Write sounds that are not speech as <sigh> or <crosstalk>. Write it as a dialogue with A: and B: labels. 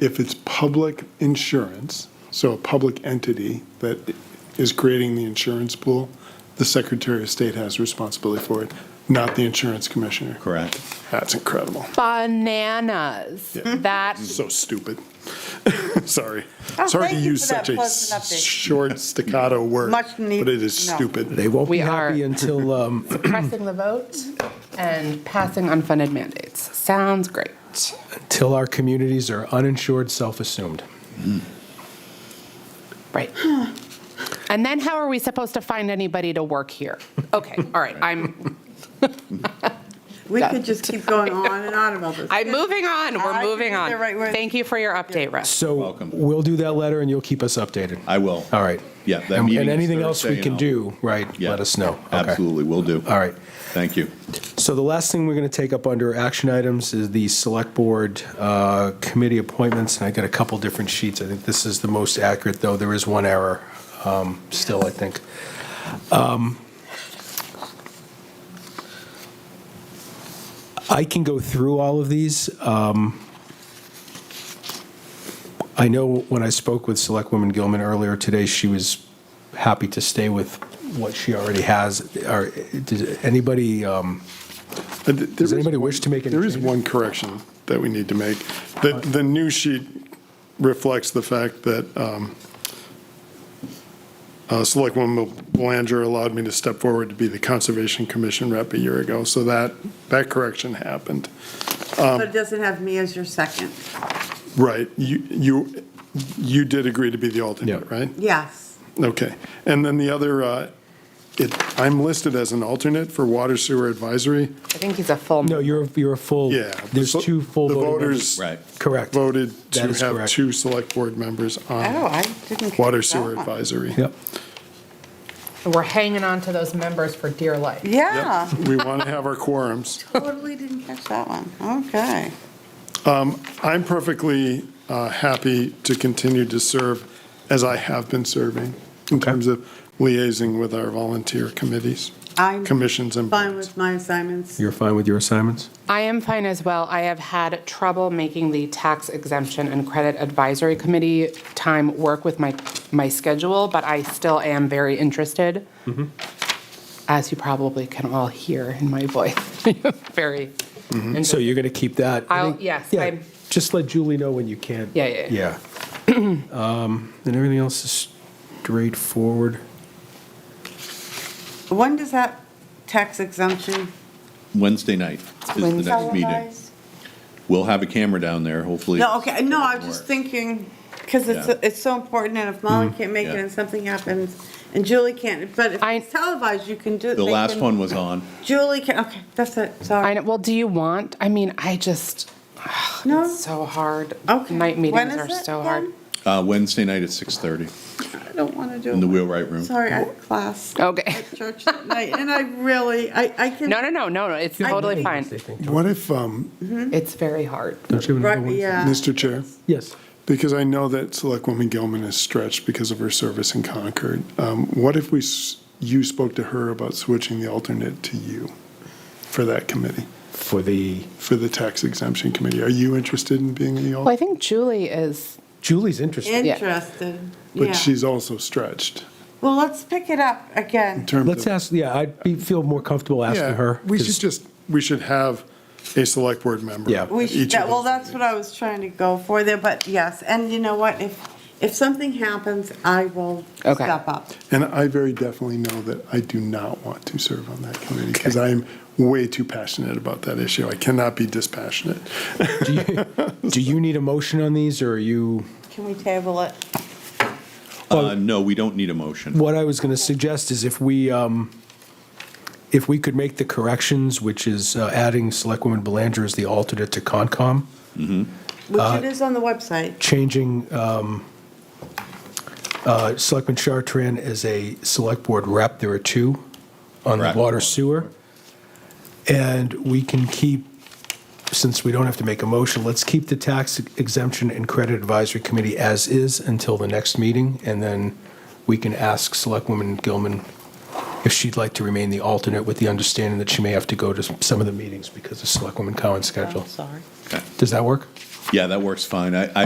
A: If it's public insurance, so a public entity that is creating the insurance pool, the Secretary of State has responsibility for it, not the insurance commissioner.
B: Correct.
A: That's incredible.
C: Bananas.
A: Yeah.
C: That,
A: So stupid. <laughs> Sorry.
D: Oh,
A: Sorry to
D: thank you
A: use
D: for that
A: such a
D: pleasant update.
A: short staccato word,
D: Much
A: but
D: need-
A: it is
D: no.
A: stupid.
E: They won't be
C: We are- <laughs>
E: happy until, um,
C: pressing the vote and passing unfunded mandates. Sounds great.
E: until our communities are uninsured, self-assumed.
C: Right. And then how are we supposed to find anybody to work here? Okay, all right, I'm,
D: We could just <laughs> keep going on and on about this.
C: I'm moving on,
D: I
C: we're
D: think
C: moving on.
D: they're right where-
C: Thank you for your update, Russ.
E: So
B: Welcome.
E: we'll do that letter and you'll keep us updated.
B: I will.
E: All right.
B: Yeah, that
E: And
B: meeting
E: and
B: is
E: anything else we
B: Thursday,
E: can
B: and
E: do, right,
B: Yeah.
E: let us know. Okay.
B: Absolutely, will do.
E: All right.
B: Thank you.
E: So the last thing we're going to take up under action items is the Select Board uh, Committee appointments, and I got a couple different sheets. I think this is the most accurate, though there is one error um, still, I think. Um, I can go through all of these. Um, I know when I spoke with Selectwoman Gilman earlier today, she was happy to stay with what she already has. Are, does anybody, um,
A: Does
E: anybody wish to make any
A: There is
E: changes?
A: one correction that we need to make. The, the new sheet reflects the fact that um, uh, Selectwoman Belanger allowed me to step forward to be the Conservation Commission rep a year ago, so that, that correction happened.
D: But it doesn't have me as your second.
A: Right, you, you, you did agree to be the alternate,
E: Yeah.
A: right?
D: Yes.
A: Okay, and then the other, uh, it, I'm listed as an alternate for Water Sewer Advisory.
C: I think he's a full.
E: No, you're, you're a full.
A: Yeah.
E: There's
A: the vo-
E: two full
A: The
E: voting
A: voters
B: Right.
E: Correct.
A: voted
E: That
A: to
E: is
A: have
E: correct.
A: two select board members
D: Oh,
A: on
D: I
A: Um,
D: didn't.
A: Water
D: catch that
A: Sewer
D: one.
A: Advisory.
E: Yep.
C: We're hanging on to those members for dear life.
D: Yeah,
A: We want to have our quorums.
D: <laughs> totally didn't catch that one. Okay.
A: I'm perfectly uh, happy to continue to serve as I have been serving in
E: Okay.
A: terms of liaising with our volunteer committees,
D: I'm
A: commissions and
D: fine
A: boards.
D: with my assignments.
E: You're fine with your assignments?
C: I am fine as well. I have had trouble making the tax exemption and credit advisory committee time work with my, my schedule, but I still am very interested. As you probably can all hear in my voice, <laughs> very. interested.
E: So you're going to keep that? I
C: I'll-
E: think-
C: yes,
E: Yeah,
C: I'm-
E: just let Julie know when you can.
C: Yeah, yeah,
E: Yeah. <clears throat> Um, And everything else is straightforward.
D: When does that tax exemption?
B: Wednesday night is the next meeting.
D: televised?
B: We'll have a camera down there, hopefully.
D: No, okay, no, I'm just thinking, because it's,
B: Yeah. Mm-hmm.
D: it's so important, and if Molly can't make it
B: yeah.
D: and something happens, and Julie can't, but if
C: I-
D: it's televised, you can do.
B: The
D: they
B: last
D: can-
B: one was on.
D: Julie can, okay, that's it,
C: I
D: sorry.
C: know, well, do you want, I mean, I just,
D: No?
C: it's so hard.
D: Okay.
C: Night
D: When
C: meetings
D: is
C: are
D: it
C: so hard.
D: again?
B: Uh, Wednesday night at 6:30
D: I don't want to do it.
B: in the wheelwright room.
D: Sorry, I have class
C: Okay.
D: at church at night, and I really, I, I can.
C: No, no, no, no, no, it's
D: I- Hmm?
C: totally fine.
A: What if, um,
C: It's very hard.
E: Don't you have another
D: Right,
E: one?
D: yeah.
A: Mr. Chair?
E: Yes.
A: Because I know that Selectwoman Gilman is stretched because of her service in Concord. Um, What if we, s- you spoke to her about switching the alternate to you for that committee,
E: For the,
A: for the tax exemption committee? Are you interested in being the
C: Well, I
A: alternate?
C: think Julie is,
E: Julie's interested.
D: Interested, yeah.
A: But she's also stretched
D: Well, let's pick it up
A: in
D: again.
A: terms of.
E: Let's ask, yeah, I'd be, feel more comfortable
A: Yeah,
E: asking her.
A: We
E: 'cause-
A: should just, we should have a select board member.
E: Yeah.
D: We
A: at
D: should,
A: each of
D: that- well,
A: those
D: that's what I was trying to go for there, but yes, and you know what, if, if something happens, I will
C: Okay.
D: step up.
A: And I very definitely know that I do not want to serve on that committee because I am way too passionate about that issue. I cannot be dispassionate.
E: Do
A: <laughs>
E: you- do you need a motion on these, or are you?
D: Can we table it?
B: Uh, No, we don't need a motion.
E: What I was going to suggest is if we, um, if we could make the corrections, which is uh, adding Selectwoman Belanger as the alternate to Concom,
A: Uh,
D: Which it is on the website.
E: changing um, uh, Selectman Chartran as a Select Board rep, there are two on the
B: Correct.
E: water sewer. And we can keep, since we don't have to make a motion, let's keep the Tax Exemption and Credit Advisory Committee as is until the next meeting, and then we can ask Selectwoman Gilman if she'd like to remain the alternate with the understanding that she may have to go to some of the meetings because of Selectwoman Cowan's schedule.
D: Oh, Sorry.
E: Does that work?
B: Yeah, that works fine. I,